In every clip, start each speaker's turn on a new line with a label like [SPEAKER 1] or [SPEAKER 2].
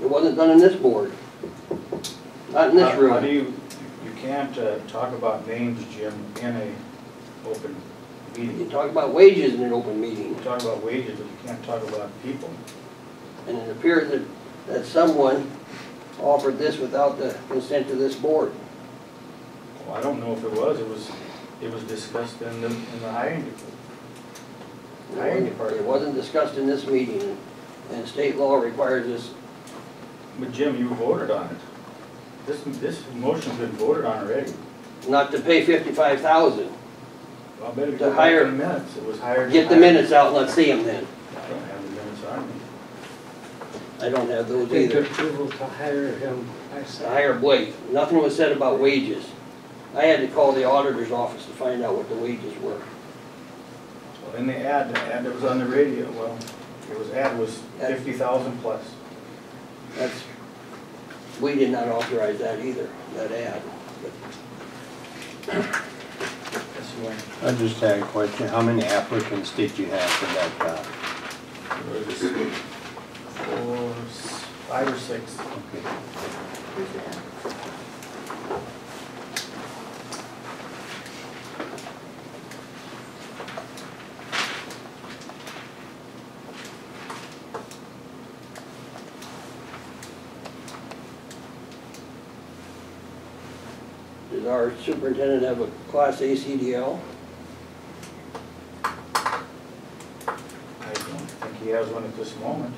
[SPEAKER 1] It wasn't done in this board. Not in
[SPEAKER 2] How-
[SPEAKER 1] this
[SPEAKER 2] How
[SPEAKER 1] room.
[SPEAKER 2] do you, you can't uh, talk about names, Jim, in a open
[SPEAKER 1] You
[SPEAKER 2] meeting.
[SPEAKER 1] talk about wages in an open
[SPEAKER 2] You
[SPEAKER 1] meeting,
[SPEAKER 2] talk about wages, but you can't talk about people.
[SPEAKER 1] and it appears that, that someone offered this without the consent of this board.
[SPEAKER 2] Well, I don't know if it was, it was, it was discussed in the, in the hiring department.
[SPEAKER 1] It
[SPEAKER 2] Hiring
[SPEAKER 1] wasn't-
[SPEAKER 2] department.
[SPEAKER 1] It wasn't discussed in this meeting, and state law requires this.
[SPEAKER 2] But Jim, you voted on it. This, this motion's been voted on already.
[SPEAKER 1] not to pay fifty-five thousand.
[SPEAKER 2] Well, I better
[SPEAKER 1] To
[SPEAKER 2] go back
[SPEAKER 1] hire-
[SPEAKER 2] to the minutes, it was hired.
[SPEAKER 1] Get the
[SPEAKER 2] and hired.
[SPEAKER 1] minutes out and let's see them then.
[SPEAKER 2] I don't have the minutes on me.
[SPEAKER 1] I don't have those
[SPEAKER 3] Take
[SPEAKER 1] either.
[SPEAKER 3] approval to hire him. I
[SPEAKER 1] To
[SPEAKER 3] say,
[SPEAKER 1] hire Blake, nothing was said about wages. I had to call the auditor's office to find out what the wages were.
[SPEAKER 2] Well, in the ad, the ad that was on the radio, well, it was, ad was fifty thousand plus.
[SPEAKER 1] That's, we did not authorize that either, that ad.
[SPEAKER 2] That's the one.
[SPEAKER 4] I just had a question, how many applicants did you have for that job?
[SPEAKER 2] Four, s- five or six.
[SPEAKER 4] Okay.
[SPEAKER 1] Does our superintendent have a class A CDL?
[SPEAKER 2] I don't think he has one at this moment.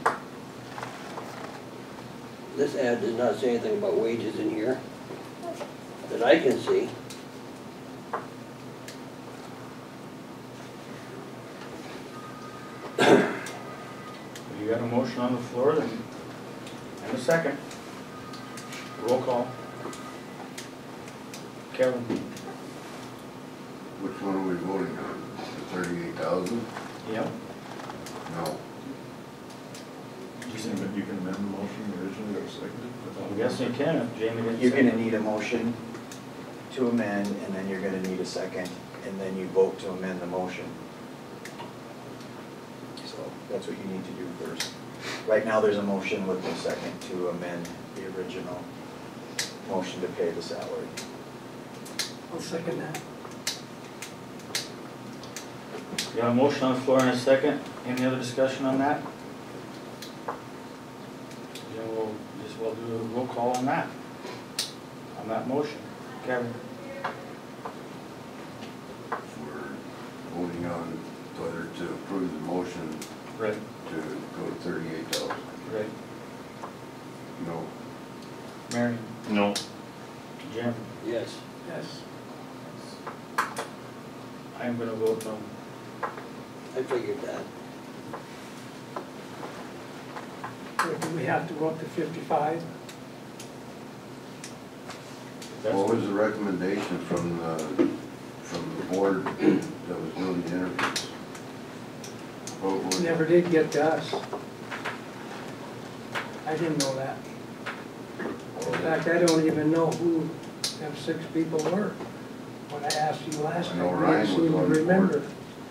[SPEAKER 1] This ad does not say anything about wages in here that I can see.
[SPEAKER 2] You got a motion on the floor, then, and a second. Roll call. Kevin,
[SPEAKER 5] Which one are we voting on? The thirty-eight thousand?
[SPEAKER 2] yeah,
[SPEAKER 5] No.
[SPEAKER 6] You can, you can amend the motion originally that was seconded?
[SPEAKER 2] I'm guessing you can, if Jamie didn't say.
[SPEAKER 7] You're gonna need a motion to amend, and then you're gonna need a second, and then you vote to amend the motion. So that's what you need to do first. Right now, there's a motion with no second to amend the original motion to pay the salary.
[SPEAKER 3] I'll second that.
[SPEAKER 2] You got a motion on the floor and a second, any other discussion on that? Then we'll, just we'll do a roll call on that, on that motion. Kevin?
[SPEAKER 5] We're voting on whether to approve the motion
[SPEAKER 2] Right.
[SPEAKER 5] to go to thirty-eight thousand.
[SPEAKER 2] Right.
[SPEAKER 5] No.
[SPEAKER 2] Mary?
[SPEAKER 6] No.
[SPEAKER 2] Jim?
[SPEAKER 1] Yes.
[SPEAKER 2] Yes. I'm gonna vote no.
[SPEAKER 1] I figured that.
[SPEAKER 3] Or Do we have to go up to fifty-five?
[SPEAKER 2] That's
[SPEAKER 5] What was the recommendation from the, from the board that was doing the interviews? What was-
[SPEAKER 3] Never did get to us. I didn't know that. In fact, I don't even know who them six people were. When I asked you last
[SPEAKER 5] I know
[SPEAKER 3] time,
[SPEAKER 5] Ryan
[SPEAKER 3] you
[SPEAKER 5] was
[SPEAKER 3] seemed to
[SPEAKER 5] on the board.
[SPEAKER 3] remember.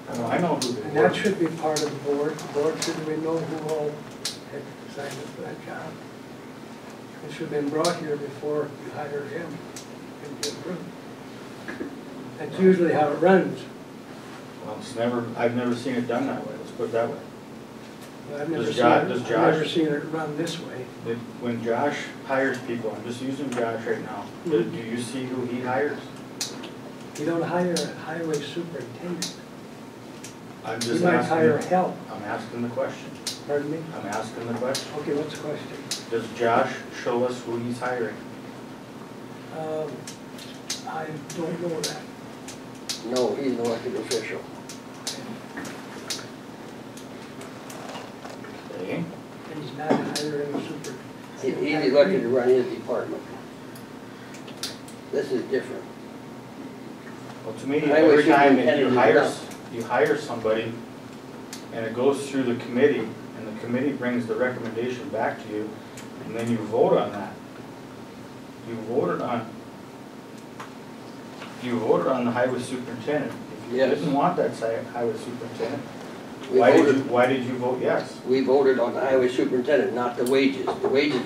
[SPEAKER 2] Oh, I know who
[SPEAKER 3] And
[SPEAKER 2] they were.
[SPEAKER 3] that should be part of the board. The board should we know who all had signed up for that job. It should have been brought here before you hired him and get approved. That's usually how it runs.
[SPEAKER 2] Well, it's never, I've never seen it done that way, let's put it that way.
[SPEAKER 3] I've never
[SPEAKER 2] Does
[SPEAKER 3] seen, it-
[SPEAKER 2] Jo- does
[SPEAKER 3] I've
[SPEAKER 2] Josh-
[SPEAKER 3] never seen it run this way.
[SPEAKER 2] If- When Josh hires people, I'm just using Josh right now, do do you see who he hires?
[SPEAKER 3] You don't hire a highway superintendent.
[SPEAKER 2] I'm
[SPEAKER 3] You
[SPEAKER 2] just
[SPEAKER 3] might hire
[SPEAKER 2] asking,
[SPEAKER 3] help,
[SPEAKER 2] I'm asking the question,
[SPEAKER 3] pardon me?
[SPEAKER 2] I'm asking the question.
[SPEAKER 3] Okay, what's the question?
[SPEAKER 2] Does Josh show us who he's hiring?
[SPEAKER 3] Um, I don't know that.
[SPEAKER 1] No, he's an elected official.
[SPEAKER 2] Okay.
[SPEAKER 3] And he's not hiring a super.
[SPEAKER 1] He- He's elected to run his department. This is different.
[SPEAKER 2] Well, to me,
[SPEAKER 1] Highway
[SPEAKER 2] every time that you
[SPEAKER 1] superintendent is
[SPEAKER 2] hire,
[SPEAKER 1] enough.
[SPEAKER 2] you hire somebody, and it goes through the committee, and the committee brings the recommendation back to you, and then you vote on that. You voted on, you voted on the highway superintendent. If you
[SPEAKER 1] Yes.
[SPEAKER 2] didn't want that si- highway superintendent,
[SPEAKER 1] We
[SPEAKER 2] why did you,
[SPEAKER 1] voted,
[SPEAKER 2] why did you vote yes?
[SPEAKER 1] we voted on the highway superintendent, not the wages. The wages